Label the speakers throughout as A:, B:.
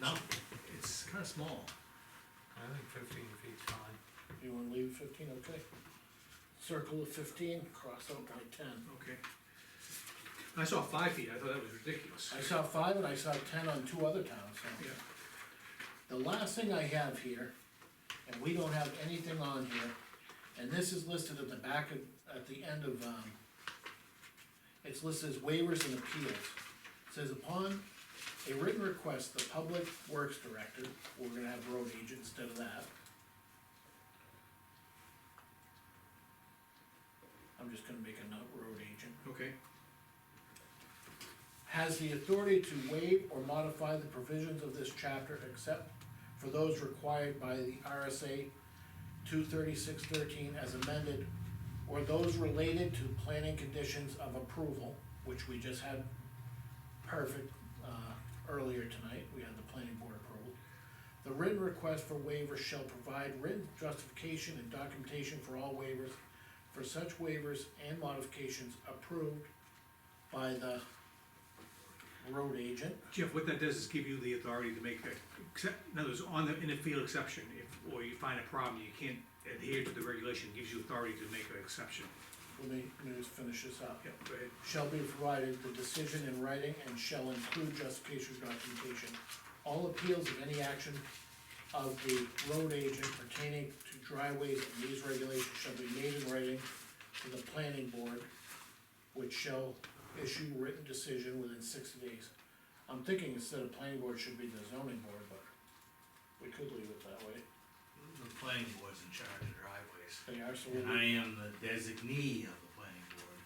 A: No, it's kinda small.
B: I think fifteen feet's fine.
C: You wanna leave fifteen, okay? Circle of fifteen, cross out by ten.
A: Okay. I saw five feet, I thought that was ridiculous.
C: I saw five and I saw ten on two other towns, so.
A: Yeah,
C: The last thing I have here, and we don't have anything on here, and this is listed at the back of, at the end of, um, it's listed as waivers and appeals. It Says upon a written request, the public works director, we're gonna have road agent instead of that. I'm just gonna make a note, road agent
A: okay,
C: has the authority to waive or modify the provisions of this chapter except for those required by the RSA two thirty-six thirteen as amended, or those related to planning conditions of approval, which we just had perfect, uh, earlier tonight, we had the planning board approval. The written request for waiver shall provide written justification and documentation for all waivers, for such waivers and modifications approved by the road agent.
A: Jeff, what that does is give you the authority to make, a- except, in other words, on the, in a field exception, if, or you find a problem, you can't adhere to the regulation, it gives you authority to make an exception.
C: Let me, let me just finish this up.
A: Yeah, go ahead.
C: Shall be provided the decision in writing and shall include justification documentation. All appeals of any action of the road agent pertaining to driveways and these regulations shall be made in writing to the planning board, which shall issue written decision within sixty days. I'm thinking instead of planning board should be the zoning board, but we could leave it that way.
D: The planning board's in charge of driveways,
C: They are, so
D: and
C: we'll-
D: I am the designee of the planning board.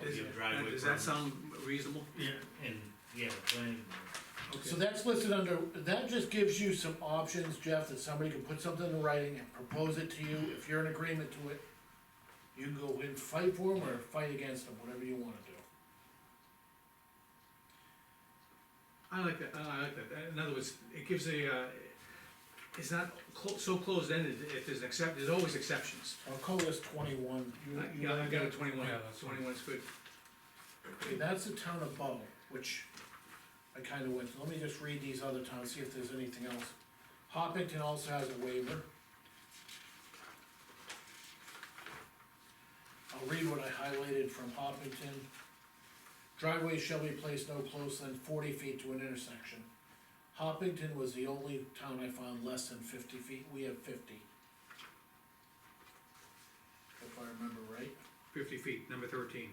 D: To
A: Is-
D: give driveway
A: Does that
D: permits.
A: sound reasonable?
D: Yeah, and, yeah, the planning board,
A: Okay.
C: So that's listed under, that just gives you some options, Jeff, that somebody can put something in writing and propose it to you, if you're in agreement to it. You can go in, fight for them, or fight against them, whatever you wanna do.
A: I like that, I like that, in other words, it gives a, uh, it's not clo- so closed-ended, if there's an except, there's always exceptions.
C: I'll call this twenty-one, you,
A: I-
C: you
A: Yeah, I've
C: like
A: got a
C: that?
A: twenty-one,
B: Yeah, that's fine.
A: 21 is good.
C: Okay, that's the town of Bow, which I kinda went, let me just read these other towns, see if there's anything else. Hoppington also has a waiver. I'll read what I highlighted from Hoppington. Driveways shall be placed no closer than forty feet to an intersection. Hoppington was the only town I found less than fifty feet, we have fifty. If I remember right,
A: Fifty feet, number thirteen.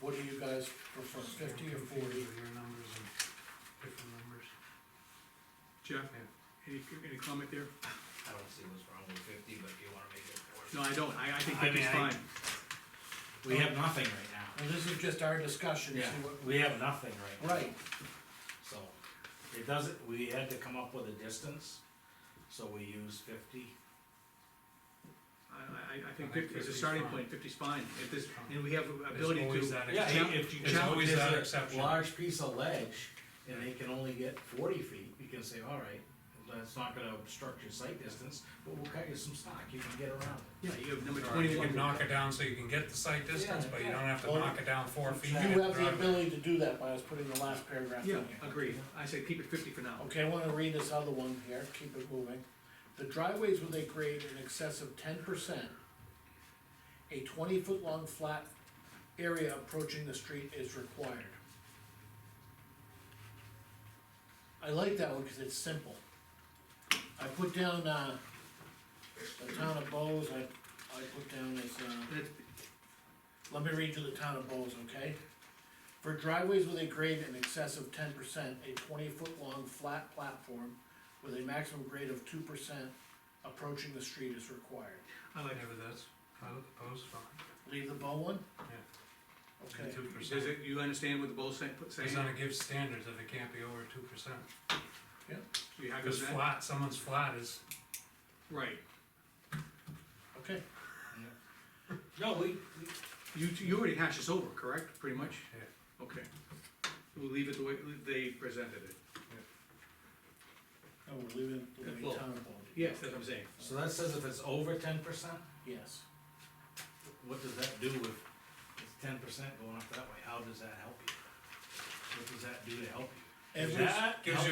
C: what do you guys prefer, fifty or
B: You're confused
C: forty?
B: with Your numbers and different numbers.
A: Jeff, any, any comment there?
D: I don't see what's wrong with fifty, but if you wanna make it
A: No,
D: forty.
A: I don't, I, I think
D: I
A: that is
D: mean, I-
A: fine.
D: We have nothing right now.
C: Well, this is just our discussion, see what-
D: We have nothing right now.
C: right,
D: So, it doesn't, we had to come up with a distance, so we use fifty.
A: I, I, I
B: I
A: think
B: think
A: fifty is a
B: 50 is
A: starting
B: fine.
A: point, fifty's fine, if this, and we have ability
B: There's always
A: to.
B: that
D: Yeah,
B: exception.
D: if you
B: There's
D: challenge-
B: always
D: there's
B: that
D: a
B: exception.
D: Large piece of ledge, and they can only get forty feet, you can say, alright, that's not gonna obstruct your sight distance, but we'll cut you some stock, you can get around it.
A: Yeah, you have number
B: Or you can
A: twenty-one,
B: knock it down so you can get the site distance, but you don't have to
C: Well,
B: knock it down four feet.
C: you
B: to get
C: have the
B: driveway.
C: ability to do that by us putting the last paragraph in
A: yeah,
C: here.
A: agreed, I say keep it fifty for now.
C: Okay, I wanna read this other one here, keep it moving. The driveways with a grade in excess of ten percent, a twenty-foot long flat area approaching the street is required. I like that one, cause it's simple. I put down, uh, the town of Bowes, I, I put down as, uh.
A: That's-
C: Let me read you the town of Bowes, okay? For driveways with a grade in excess of ten percent, a twenty-foot long flat platform with a maximum grade of two percent approaching the street is required.
A: I like,
B: Whatever that's, opposed, fine.
C: Leave the bow one? Okay,
B: Two
A: does
B: percent.
A: it, you understand what the both say,
B: He's
A: saying,
B: gonna give standards if it can't be over two percent.
A: you happy
B: Cause
A: with that?
B: flat, someone's flat is,
A: Right,
C: okay,
D: No, we,
A: you, you already hashed this over, correct, pretty much?
B: yeah.
A: Okay, we'll leave it the way they presented it.
C: no, we're leaving it the
A: Well,
C: way town of Bowes,
A: Yes, that's what I'm saying.
D: so that says if it's over ten percent,
C: yes.
D: what does that do if it's ten percent going up that way, how does that help you? What does that do to help you?
C: Every-
D: That
B: Gives you